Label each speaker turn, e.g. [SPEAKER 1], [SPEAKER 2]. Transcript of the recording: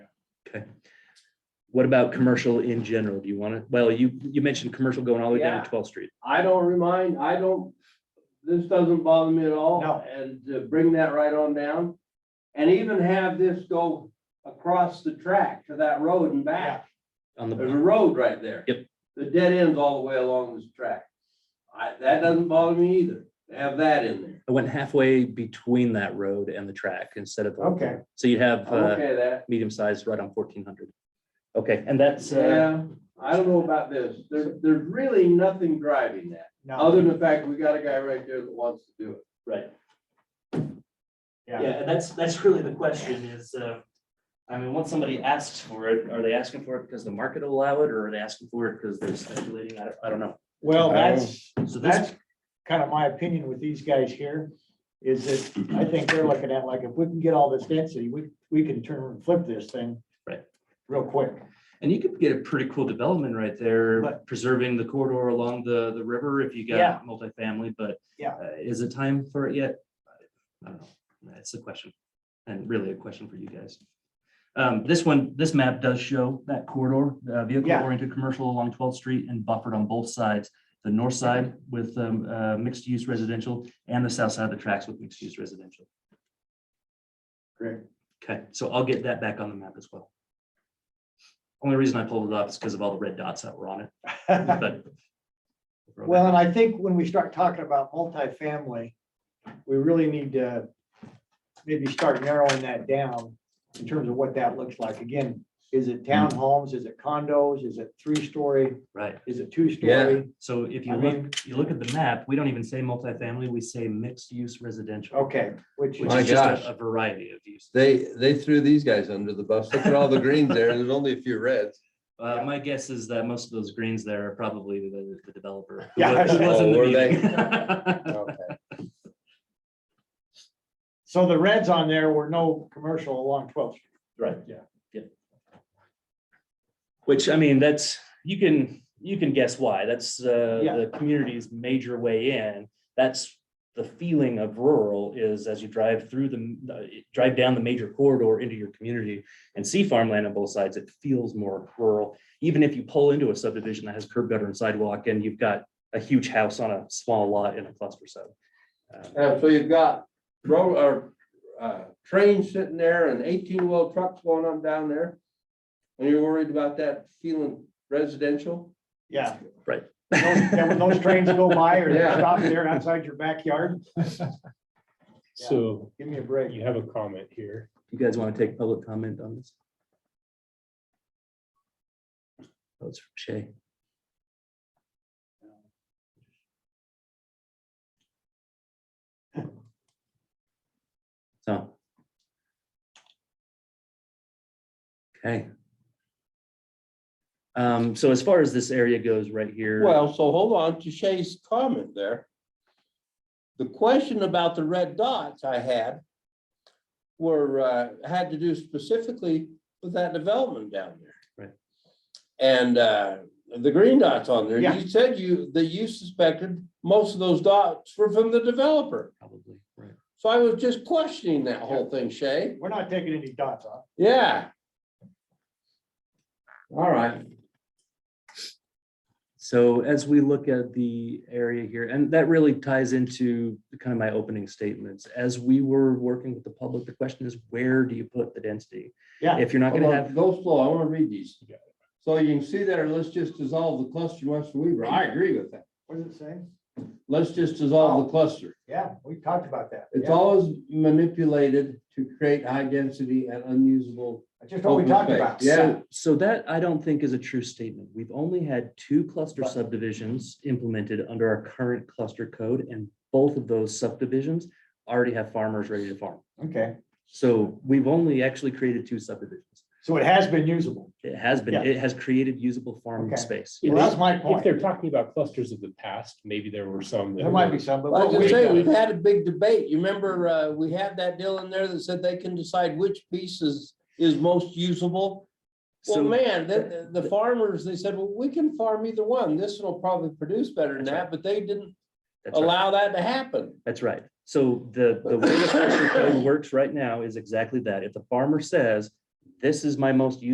[SPEAKER 1] What about commercial in general? Do you want to, well, you, you mentioned commercial going all the way down
[SPEAKER 2] Yeah.
[SPEAKER 1] to twelfth street.
[SPEAKER 2] I don't remind, I don't, this doesn't bother me at all.
[SPEAKER 3] No.
[SPEAKER 2] And to bring that right on down. And even have this go across the track to that road and back.
[SPEAKER 1] On
[SPEAKER 2] There's a
[SPEAKER 1] the,
[SPEAKER 2] road right there.
[SPEAKER 1] Yep.
[SPEAKER 2] The dead ends all the way along this track. I, that doesn't bother me either. to Have that in there.
[SPEAKER 1] I went halfway between that road and the track instead of. the-
[SPEAKER 3] Okay,
[SPEAKER 1] So you'd have
[SPEAKER 2] I'm
[SPEAKER 1] uh,
[SPEAKER 2] okay with that.
[SPEAKER 1] medium sized right on fourteen hundred. Okay, and that's, uh,
[SPEAKER 2] Yeah, I don't know about this. There's, there's really nothing driving that,
[SPEAKER 3] no,
[SPEAKER 2] other than the fact we got a guy right there that wants to do it.
[SPEAKER 4] Right,
[SPEAKER 3] yeah,
[SPEAKER 4] yeah, and that's, that's really the question is, uh, I mean, once somebody asks for it, are they asking for it because the market will allow it, or are they asking for it because they're speculating? I don't, I don't know.
[SPEAKER 3] well,
[SPEAKER 5] I-
[SPEAKER 3] that's,
[SPEAKER 4] So
[SPEAKER 3] that's
[SPEAKER 4] that's,
[SPEAKER 3] kind of my opinion with these guys here, is that I think they're looking at like, if we can get all this density, we, we can turn and flip this thing.
[SPEAKER 1] Right.
[SPEAKER 3] Real quick,
[SPEAKER 1] and you could get a pretty cool development right there,
[SPEAKER 3] But-
[SPEAKER 1] preserving the corridor along the, the river if you
[SPEAKER 3] Yeah.
[SPEAKER 1] got multifamily, but.
[SPEAKER 3] Yeah.
[SPEAKER 1] uh, Is it time for it yet? I don't know. That's the question. And really a question for you guys. Um, this one, this map does show that corridor, uh, vehicle
[SPEAKER 3] Yeah.
[SPEAKER 1] oriented commercial along twelfth street and buffered on both sides. The north side with, um, uh, mixed use residential and the south side of the tracks with mixed use residential.
[SPEAKER 3] Great.
[SPEAKER 1] Okay, so I'll get that back on the map as well. Only reason I pulled it up is because of all the red dots that were on it, but.
[SPEAKER 3] Well, and I think when we start talking about multifamily, we really need to maybe start narrowing that down in terms of what that looks like. Again, is it townhomes? Is it condos? Is it three-story?
[SPEAKER 1] Right,
[SPEAKER 3] Is it two-story?
[SPEAKER 1] so if you
[SPEAKER 3] I
[SPEAKER 1] look,
[SPEAKER 3] mean-
[SPEAKER 1] you look at the map, we don't even say multifamily, we say mixed use residential.
[SPEAKER 3] Okay, which
[SPEAKER 1] Which
[SPEAKER 5] My
[SPEAKER 3] is,
[SPEAKER 1] is just
[SPEAKER 5] gosh.
[SPEAKER 1] a- a variety of uses.
[SPEAKER 5] They, they threw these guys under the bus. Look at all the greens there. There's only a few reds.
[SPEAKER 1] Uh, my guess is that most of those greens there are probably the, the developer. who
[SPEAKER 3] Yeah.
[SPEAKER 1] was- who was in the
[SPEAKER 5] Oh, were
[SPEAKER 1] meeting.
[SPEAKER 5] Okay.
[SPEAKER 3] so the reds on there were no commercial along 12th. Street.
[SPEAKER 1] Which, I mean, that's, you can, you can guess why. That's, uh,
[SPEAKER 3] Yeah.
[SPEAKER 1] the community's major way in. That's the feeling of rural is as you drive through the, uh, drive down the major corridor into your community and see farmland on both sides, it feels more rural. Even if you pull into a subdivision that has curb gutter and sidewalk and you've got a huge house on a small lot in a cluster sub. Um,
[SPEAKER 2] Yeah, so you've got road, or, uh, trains sitting there and eighteen wheel trucks going on down there. And you're worried about that feeling residential?
[SPEAKER 3] Yeah.
[SPEAKER 1] Right.
[SPEAKER 3] Those- And when those trains go by or they
[SPEAKER 2] Yeah.
[SPEAKER 3] stop there outside your backyard, Yeah.
[SPEAKER 6] So
[SPEAKER 3] give me a break.
[SPEAKER 6] you have a comment here.
[SPEAKER 1] You guys want to take public comment on this? That's from Shay. So. Okay. Um, so as far as this area goes right here.
[SPEAKER 2] Well, so hold on to Shay's comment there. The question about the red dots I had were, uh, had to do specifically with that development down there.
[SPEAKER 1] Right.
[SPEAKER 2] And, uh, the green dots on there,
[SPEAKER 3] Yeah.
[SPEAKER 2] you said you, that you suspected most of those dots were from the developer.
[SPEAKER 1] Probably, right.
[SPEAKER 2] So I was just questioning that whole thing, Shay.
[SPEAKER 3] We're not taking any dots off.
[SPEAKER 2] Yeah. All right.
[SPEAKER 1] So as we look at the area here, and that really ties into kind of my opening statements, as we were working with the public, the question is, where do you put the density?
[SPEAKER 3] Yeah.
[SPEAKER 1] If you're not gonna
[SPEAKER 2] Hold on,
[SPEAKER 1] have,
[SPEAKER 2] Go slow, I wanna read these.
[SPEAKER 6] Yeah.
[SPEAKER 2] So you can see there, let's just dissolve the cluster once for Weaver, I agree with that,
[SPEAKER 3] What does it say?
[SPEAKER 2] let's just dissolve the cluster.
[SPEAKER 3] Yeah, we talked about that.
[SPEAKER 2] It's
[SPEAKER 3] Oh. Yeah.
[SPEAKER 2] always manipulated to create high density and unusable.
[SPEAKER 3] That's just what we
[SPEAKER 2] open
[SPEAKER 3] talked
[SPEAKER 2] space.
[SPEAKER 3] about.
[SPEAKER 2] Yeah,
[SPEAKER 1] so that I don't think is a true statement. We've only had two cluster
[SPEAKER 3] Right.
[SPEAKER 1] subdivisions implemented under our current cluster code, and both of those subdivisions already have farmers ready to farm.
[SPEAKER 3] Okay,
[SPEAKER 1] So we've only actually created two subdivisions.
[SPEAKER 3] so it has been usable.
[SPEAKER 1] It has been,
[SPEAKER 3] Yeah.
[SPEAKER 1] it has created usable farm
[SPEAKER 3] Okay.
[SPEAKER 1] space.
[SPEAKER 3] Well, that's my
[SPEAKER 6] If
[SPEAKER 3] point.
[SPEAKER 6] they're talking about clusters of the past, maybe there were some. that
[SPEAKER 3] Oh, There might
[SPEAKER 6] were-
[SPEAKER 3] be some, but
[SPEAKER 2] Well, I was
[SPEAKER 3] what
[SPEAKER 2] gonna
[SPEAKER 3] we,
[SPEAKER 2] say, we've had a big debate, you remember, uh, we had that deal in there that said they can decide which piece is, is most usable? Well,
[SPEAKER 1] So-
[SPEAKER 2] man, the, the farmers, they said, well, we can farm either one, this one will probably produce better than
[SPEAKER 1] That's right.
[SPEAKER 2] that, but they didn't
[SPEAKER 1] That's right.
[SPEAKER 2] allow that to happen.
[SPEAKER 1] That's right. So the, the way the structure code works right now is exactly that. If the farmer says, this is my most useful